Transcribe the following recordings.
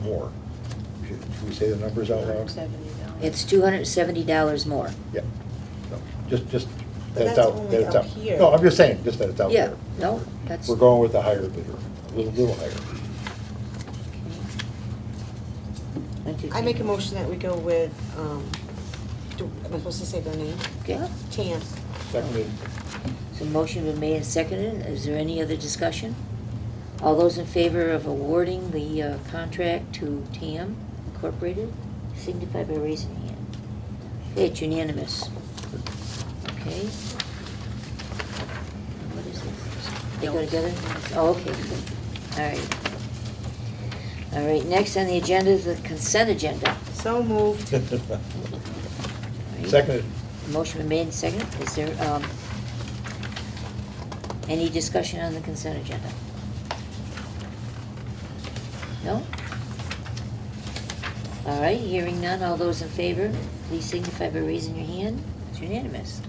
more. Should should we say the numbers out loud? $270. It's two hundred and seventy dollars more. Yeah. No, Just, just But that it's that's out, only that it's out out. here. No, I'm just saying, just that it's out Yeah, there. no, that's. Oh. We're going with the higher bidder, a little, little higher. Okay. I make a motion that we go with, um, do- am I supposed to say their name? Okay, Tan. Seconded. so motion been made and seconded. Is there any other discussion? All those in favor of awarding the uh, contract to TAM Incorporated signify by raising your hand. Okay, it's unanimous. Okay. What is this? They go together? Oh, okay, good. All right. All right, next on the agenda is the consent agenda. So moved. All right. Seconded. Motion been made and seconded. Is there, um, any discussion on the consent agenda? No? All right, hearing none. All those in favor, please signify by raising your hand. It's unanimous.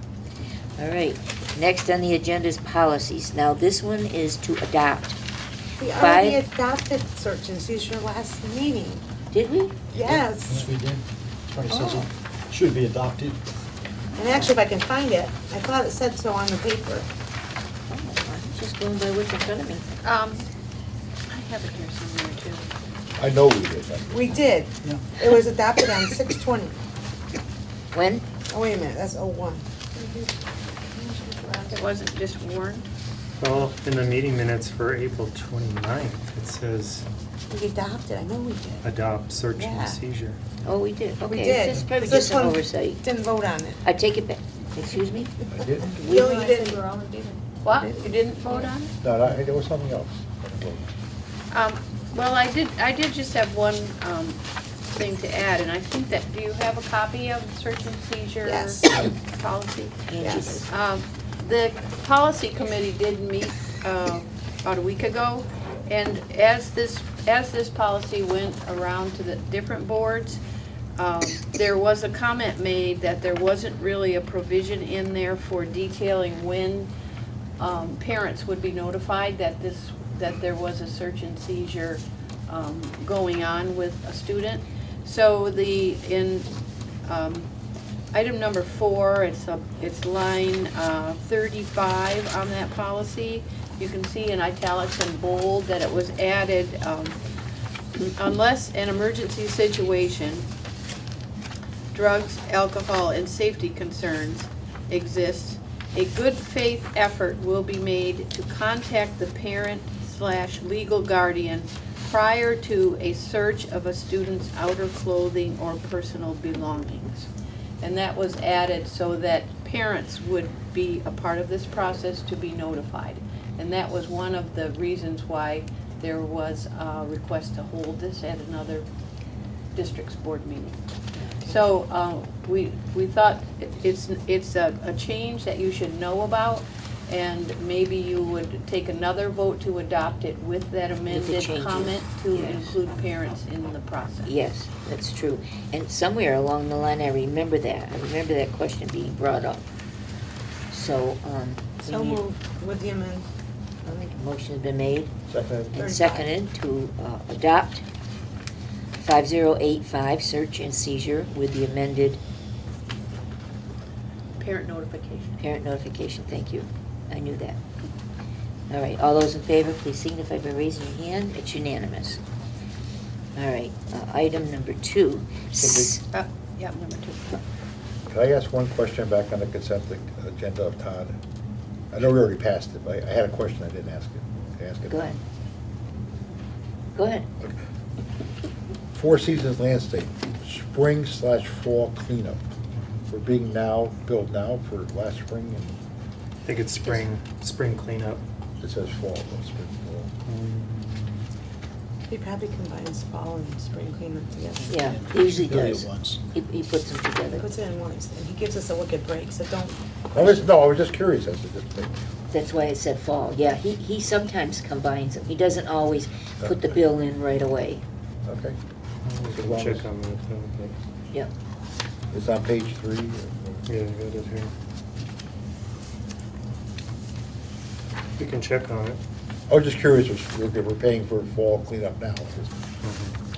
All right, next on the agenda is policies. Now, this one is to adopt. We already Five. adopted search and seizure last meeting. Did we? Yes. we did. Sorry, Oh. Susan. Should be adopted. And actually, if I can find it, I thought it said so on the paper. Oh, I'm just going by what's in front of me. Um, I have it here somewhere too. I know we did. that. We did. Yeah. It was adopted on six twenty. When? Oh, wait a minute, that's oh one. It wasn't just warned. Well, in the meeting minutes for April 29th, it says We adopted, I know we did. adopt search Yeah. and seizure. Oh, we did. We Okay, did. this is probably This just an one oversight. Didn't vote on it. I Uh, take it back. Excuse me? I did. We- No, you didn't. What? You didn't vote on it? No, no, I- there was something else. Um, well, I did, I did just have one, um, thing to add, and I think that, do you have a copy of search and seizure? Yes. Policy? Yes. Um, The policy committee did meet uh, about a week ago, and as this, as this policy went around to the different boards, um, there was a comment made that there wasn't really a provision in there for detailing when um, parents would be notified that this, that there was a search and seizure um, going on with a student. So the, in um, item number four, it's a, it's line uh, thirty-five on that policy. You can see in italics and bold that it was added, um, unless an emergency situation drugs, alcohol, and safety concerns exist, a good faith effort will be made to contact the parent slash legal guardian prior to a search of a student's outer clothing or personal belongings. And that was added so that parents would be a part of this process to be notified. And that was one of the reasons why there was a request to hold this at another district's board meeting. So, uh, we, we thought it- it's, it's a, a change that you should know about, and maybe you would take another vote to adopt it with that amended changes, comment to yes. include parents in the process. Yes, that's true. And somewhere along the line, I remember that. I remember that question being brought up. So, um. we So need- moved with the amendment. Motion's been made Seconded. and Thirty-five. seconded to uh, adopt five zero eight five, search and seizure with the amended Parent notification. parent notification. Thank you. I knew that. All right, all those in favor, please signify by raising your hand. It's unanimous. All right, uh, item number two. So Uh, yeah, number two. Can I ask one question back on the consent ag- agenda of Todd? I know we already passed it, but I I had a question I didn't ask it. Can I ask it? Go ahead. Go ahead. Four Seasons Landscape, spring slash fall cleanup. We're being now, billed now for last spring, I think it's spring, spring cleanup. and it says fall, but spring, fall. He probably combines fall and spring cleanup together. Yeah, he usually Really does. once. He, he puts them He together. puts it in once, and he gives us a wicked break, so don't. I was, no, I was just curious as to this thing. That's why it said fall. Yeah, he, he sometimes combines them. He doesn't always put the bill in right away. Okay. We can Check on that, though, Yep. It's on page three. but, yeah, I got it here. We can check on it. I was just curious, if we're if we're paying for fall cleanup now. Mhm.